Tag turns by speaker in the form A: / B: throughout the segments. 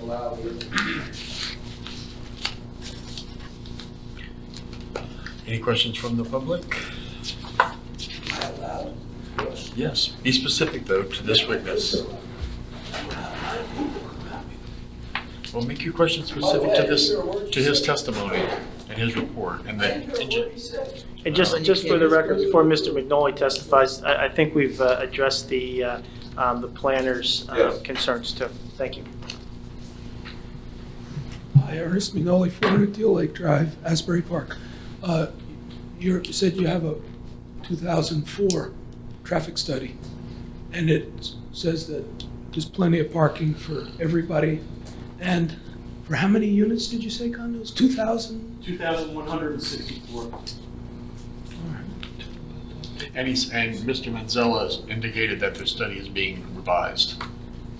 A: allow it.
B: Any questions from the public?
A: I allow it. Yes.
B: Yes, be specific though to this witness. Well, make your question specific to this, to his testimony and his report and
A: I didn't hear a
B: the.
A: word he said.
C: And
B: Uh,
C: just, just for the record, before Mr. McNolly testifies, I, I think we've uh, addressed the, uh, um, the planner's uh,
A: Yes.
C: concerns too. Thank you.
D: Hi, Ernest Mignoli, 400 Deal Lake Drive, Asbury Park. Uh, you're- You said you have a 2004 traffic study, and it s- says that there's plenty of parking for everybody. And for how many units did you say condos? 2,000?
E: 2,164.
B: And he's, and Mr. Manzella has indicated that the study is being revised.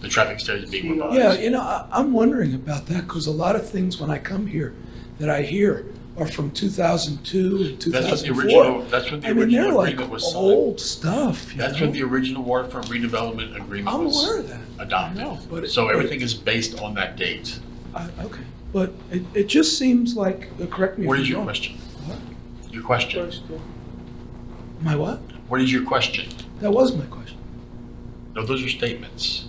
B: The traffic study is being revised.
D: Yeah, you know, I- I'm wondering about that, because a lot of things when I come here that I hear are from 2002 and
B: That's what the
D: 2004.
B: original, that's what the
D: I mean, they're
B: original
D: like
B: agreement was signed.
D: old stuff, you
B: That's
D: know?
B: what the original waterfront redevelopment agreement
D: I'm aware
B: was
D: of that. know, but
B: adopted.
D: it-
B: So
D: but it-
B: everything is based on that date.
D: I- Okay, but it, it just seems like, uh, correct me if I'm wrong.
B: What is your question? Your question?
D: My what?
B: What is your question?
D: That was my question.
B: No, those are statements.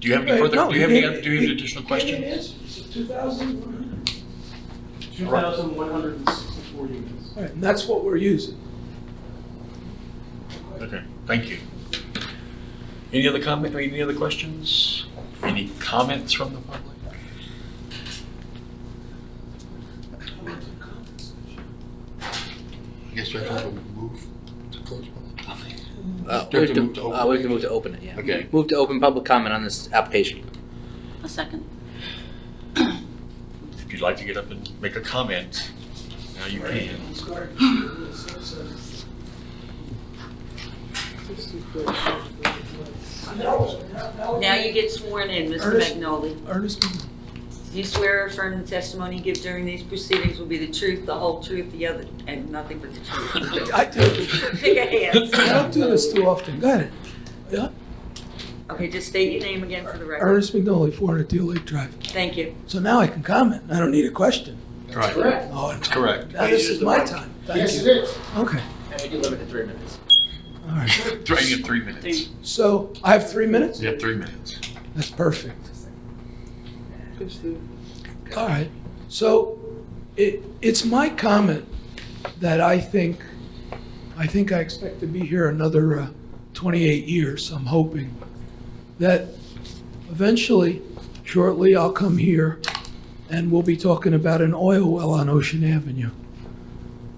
B: Do you have any
D: Uh,
B: further,
D: no,
B: do you have any,
D: it-
B: do you have
D: it-
B: an additional question?
D: 2,100.
E: 2,164 units.
D: All right, and that's what we're using.
B: Okay, thank you. Any other comment, any other questions? Any comments from the public? I guess we have to move to close public comment.
F: Uh,
B: Do you have
F: we have
B: to move to
F: to, uh, we have to move to open it, yeah.
B: Okay.
F: Move to open public comment on this application.
G: A second.
B: If you'd like to get up and make a comment, now you can.
G: Now you get sworn in, Mr.
D: Ernest?
G: Magnoli.
D: Ernest,
G: Do you swear or affirm the testimony you give during these proceedings will be the truth, the whole truth, the other, and nothing but the truth?
D: I do,
G: Pick a
D: I
G: hand.
D: don't do this too often, go ahead. Yeah,
G: Okay, just state your name again for the record.
D: Ernest McNolly, 400 Deal Lake Drive.
G: Thank you.
D: So now I can comment, I don't need a question.
B: Right,
D: Oh, and-
B: correct.
D: now this is my time, thank
A: Yes, it
D: you.
A: is.
D: Okay,
F: And we can limit to three minutes.
D: all right.
B: Three, you have three minutes.
D: So I have three minutes?
B: You have three minutes.
D: That's perfect. All right, so it, it's my comment that I think, I think I expect to be here another uh, 28 years, I'm hoping, that eventually, shortly, I'll come here and we'll be talking about an oil well on Ocean Avenue.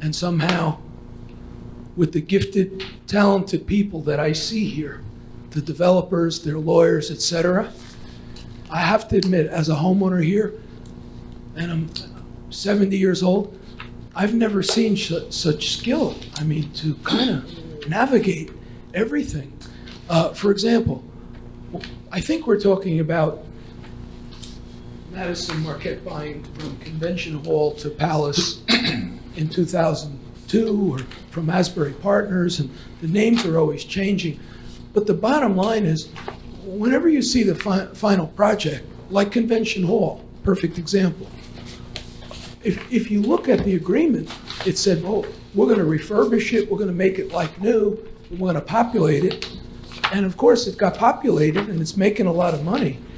D: And somehow, with the gifted, talented people that I see here, the developers, their lawyers, et cetera, I have to admit, as a homeowner here, and I'm 70 years old, I've never seen su- such skill. I mean, to kind of navigate everything. Uh, for example, I think we're talking about Madison Marquette buying from Convention Hall to Palace in 2002 or from Asbury Partners, and the names are always changing. But the bottom line is, whenever you see the fi- final project, like Convention Hall, perfect example, if, if you look at the agreement, it said, well, we're going to refurbish it, we're going to make it like new, and we're going to populate it. And of course, it got populated and it's making a lot of money.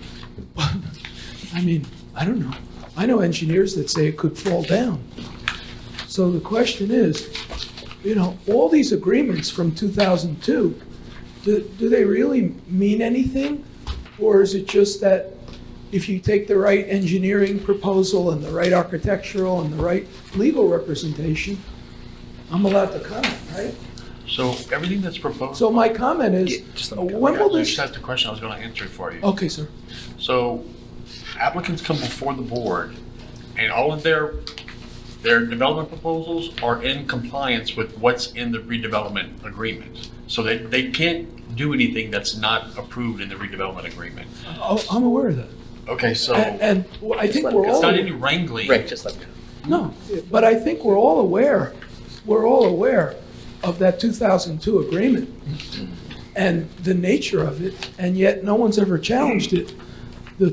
D: But, I mean, I don't know. I know engineers that say it could fall down. So the question is, you know, all these agreements from 2002, do, do they really mean anything? Or is it just that if you take the right engineering proposal and the right architectural and the right legal representation, I'm allowed to comment, right?
B: So everything that's proposed.
D: So my comment
F: Yeah,
D: is, uh,
F: just let me go.
D: when will
B: You
D: this,
B: just asked the question, I was going to answer it for you.
D: okay, sir,
B: So applicants come before the board, and all of their, their development proposals are in compliance with what's in the redevelopment agreement. So they, they can't do anything that's not approved in the redevelopment agreement.
D: Oh, I'm aware of that.
B: Okay, so
D: And,
B: it's
D: and I think
F: let
D: we're all.
B: not any wrangling.
F: Right, just let me.
D: No, but I think we're all aware, we're all aware of that 2002 agreement and the nature of it, and yet no one's ever challenged it. The